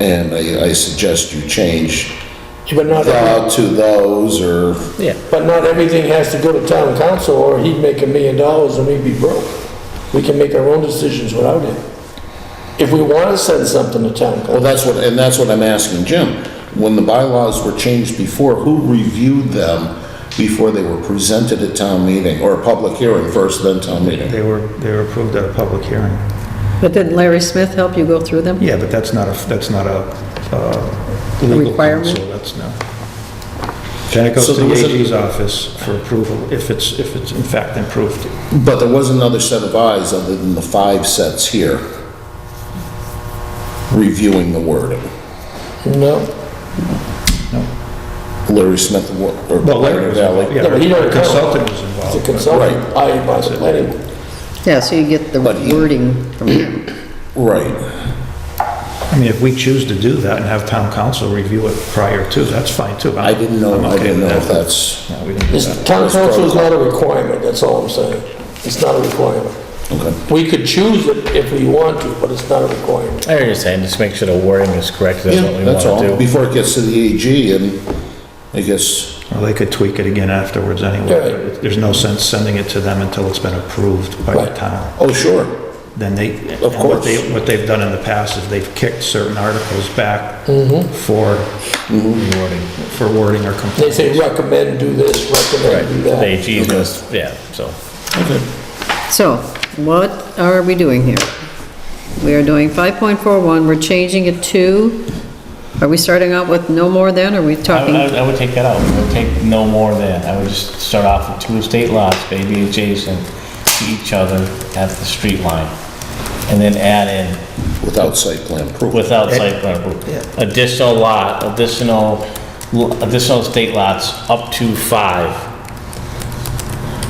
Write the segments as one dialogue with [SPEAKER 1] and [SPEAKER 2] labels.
[SPEAKER 1] And I, I suggest you change
[SPEAKER 2] But not,
[SPEAKER 1] thou to those or,
[SPEAKER 3] Yeah,
[SPEAKER 2] but not everything has to go to town council, or he'd make a million dollars and we'd be broke. We can make our own decisions without him. If we want to send something to
[SPEAKER 1] well,
[SPEAKER 2] town council,
[SPEAKER 1] that's what, and that's what I'm asking Jim. When the bylaws were changed before, who reviewed them before they were presented at town meeting or a public hearing first, then town meeting?
[SPEAKER 4] They were, they were approved at a public hearing.
[SPEAKER 3] but didn't Larry Smith help you go through them?
[SPEAKER 4] Yeah, but that's not a, that's not a, uh, legal
[SPEAKER 3] Requirement?
[SPEAKER 4] counsel, that's no. Then it goes
[SPEAKER 1] So
[SPEAKER 4] to
[SPEAKER 1] there
[SPEAKER 4] the
[SPEAKER 1] was a-
[SPEAKER 4] AG's office for approval, if it's, if it's in fact improved.
[SPEAKER 1] But there was another set of eyes other than the five sets here reviewing the wording.
[SPEAKER 2] no.
[SPEAKER 1] Larry Smith wa- or
[SPEAKER 4] Well, Larry
[SPEAKER 1] Larry
[SPEAKER 4] was,
[SPEAKER 1] Valley.
[SPEAKER 4] yeah,
[SPEAKER 2] No, but he don't
[SPEAKER 4] a consultant was
[SPEAKER 2] The
[SPEAKER 4] involved.
[SPEAKER 2] consultant, I, by the planning, board.
[SPEAKER 3] Yeah, so you get the
[SPEAKER 1] But he-
[SPEAKER 3] wording from him.
[SPEAKER 1] Right.
[SPEAKER 4] I mean, if we choose to do that and have town council review it prior to, that's fine too.
[SPEAKER 1] I
[SPEAKER 4] I'm-
[SPEAKER 1] didn't know,
[SPEAKER 4] I'm
[SPEAKER 1] I
[SPEAKER 4] okay
[SPEAKER 1] didn't know
[SPEAKER 4] with
[SPEAKER 1] if
[SPEAKER 4] that.
[SPEAKER 1] that's,
[SPEAKER 4] No, we didn't do
[SPEAKER 2] It's-
[SPEAKER 4] that.
[SPEAKER 2] town council is not a requirement, that's all I'm saying. It's not a requirement.
[SPEAKER 1] okay.
[SPEAKER 2] We could choose it if we want to, but it's not a requirement.
[SPEAKER 5] I understand, just make sure the wording is correct, that's what
[SPEAKER 1] Yeah,
[SPEAKER 5] we
[SPEAKER 1] that's
[SPEAKER 5] want
[SPEAKER 1] all.
[SPEAKER 5] to do.
[SPEAKER 1] Before it gets to the AG and I guess,
[SPEAKER 4] Well, they could tweak it again afterwards anyway.
[SPEAKER 2] Right.
[SPEAKER 4] There's no sense sending it to them until it's been approved by the
[SPEAKER 2] Right.
[SPEAKER 4] town.
[SPEAKER 1] oh, sure.
[SPEAKER 4] then they, and
[SPEAKER 1] Of
[SPEAKER 4] what they,
[SPEAKER 1] course.
[SPEAKER 4] what they've done in the past is they've kicked certain articles back for, for wording or
[SPEAKER 2] Mm-hmm. They
[SPEAKER 4] complaint.
[SPEAKER 2] say recommend do this, recommend do
[SPEAKER 5] The
[SPEAKER 2] that.
[SPEAKER 5] AG's gonna, yeah, so.
[SPEAKER 3] So, what are we doing here? We are doing 5.41, we're changing it to, are we starting out with no more than, or are we
[SPEAKER 5] I would- I
[SPEAKER 3] talking?
[SPEAKER 5] would, I would take that out, I would take no more than, I would just start off with two estate lots, maybe adjacent to each other at the street line. And then add in
[SPEAKER 1] Without site plan approval.
[SPEAKER 5] without site plan approval. Additional lot, additional, l- additional estate lots up to five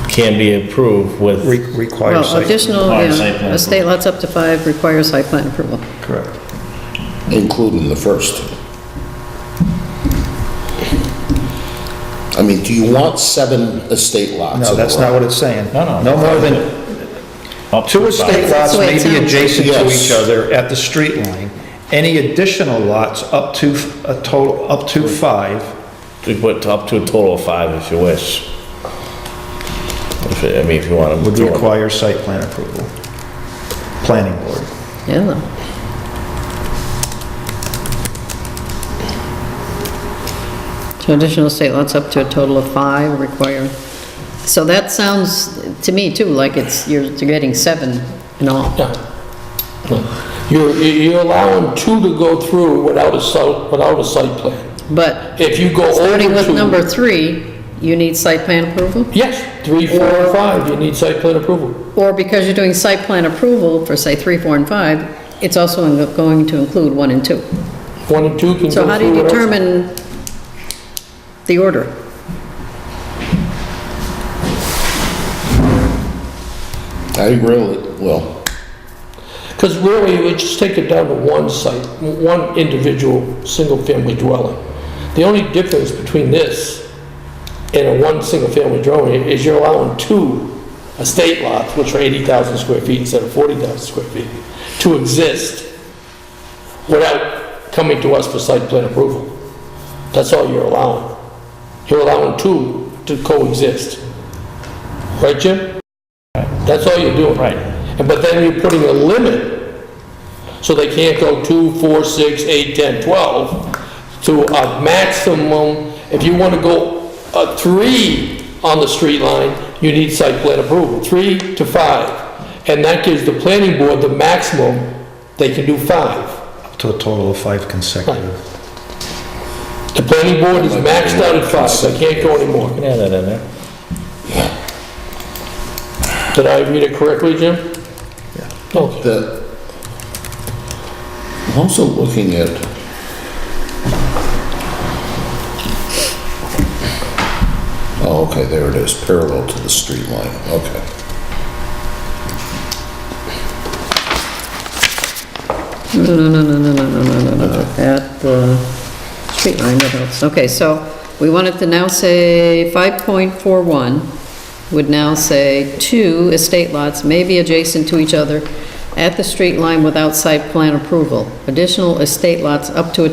[SPEAKER 5] can be approved with.
[SPEAKER 4] Re- Requires
[SPEAKER 3] Well,
[SPEAKER 4] site,
[SPEAKER 3] additional,
[SPEAKER 5] Requires site
[SPEAKER 3] yeah,
[SPEAKER 5] plan
[SPEAKER 3] estate lots up to five requires site plan approval.
[SPEAKER 4] correct.
[SPEAKER 1] Including the first. I mean, do you want seven estate lots?
[SPEAKER 4] No,
[SPEAKER 1] in a
[SPEAKER 4] that's
[SPEAKER 1] row?
[SPEAKER 4] not what it's saying.
[SPEAKER 5] No, no.
[SPEAKER 4] No more than,
[SPEAKER 5] up to
[SPEAKER 4] two
[SPEAKER 5] five.
[SPEAKER 4] estate
[SPEAKER 3] That's
[SPEAKER 4] lots
[SPEAKER 3] the way
[SPEAKER 4] may
[SPEAKER 3] it
[SPEAKER 4] be
[SPEAKER 3] sounds.
[SPEAKER 4] adjacent to
[SPEAKER 1] Yes.
[SPEAKER 4] each other at the street line. Any additional lots up to, f- a total, up to five,
[SPEAKER 5] We put up to a total of five if you wish. If, I mean, if you want to.
[SPEAKER 4] would require site plan approval. Planning board.
[SPEAKER 3] Yeah, so additional estate lots up to a total of five require. So that sounds, to me too, like it's, you're you're getting seven in all.
[SPEAKER 2] Yeah. You're, you're allowing two to go through without a site, without a site plan.
[SPEAKER 3] But
[SPEAKER 2] If you go over two.
[SPEAKER 3] starting with number three, you need site plan approval?
[SPEAKER 2] Yes, three, four, and five, you need site plan approval.
[SPEAKER 3] Or because you're doing site plan approval for, say, three, four, and five, it's also in- going to include one and two.
[SPEAKER 2] One and two can go through.
[SPEAKER 3] So how do you
[SPEAKER 2] without-
[SPEAKER 3] determine the order?
[SPEAKER 1] I agree with, well,
[SPEAKER 2] Because really, we just take it down to one site, one individual, single-family dwelling. The only difference between this and a one single-family dwelling is you're allowing two estate lots, which are 80,000 square feet instead of 40,000 square feet, to exist without coming to us for site plan approval. That's all you're allowing. You're allowing two to coexist. Right, Jim? That's all you're doing.
[SPEAKER 5] Right.
[SPEAKER 2] And But then you're putting a limit, so they can't go two, four, six, eight, 10, 12, to a maximum, if you want to go uh, three on the street line, you need site plan approval, three to five. And that gives the planning board the maximum, they can do five.
[SPEAKER 4] To a total of five consecutive.
[SPEAKER 2] The planning board is maxed out at five, I can't go anymore.
[SPEAKER 5] Yeah, that in there.
[SPEAKER 2] Did I read it correctly, Jim? Yeah. Okay.
[SPEAKER 1] the, I'm also looking at, oh, okay, there it is, parallel to the street line, okay.
[SPEAKER 3] No, no, no, no, no, no, no, no, no, no, at uh, the street line, what else? Okay, so we wanted to now say 5.41 would now say two estate lots may be adjacent to each other at the street line without site plan approval. Additional estate lots up to a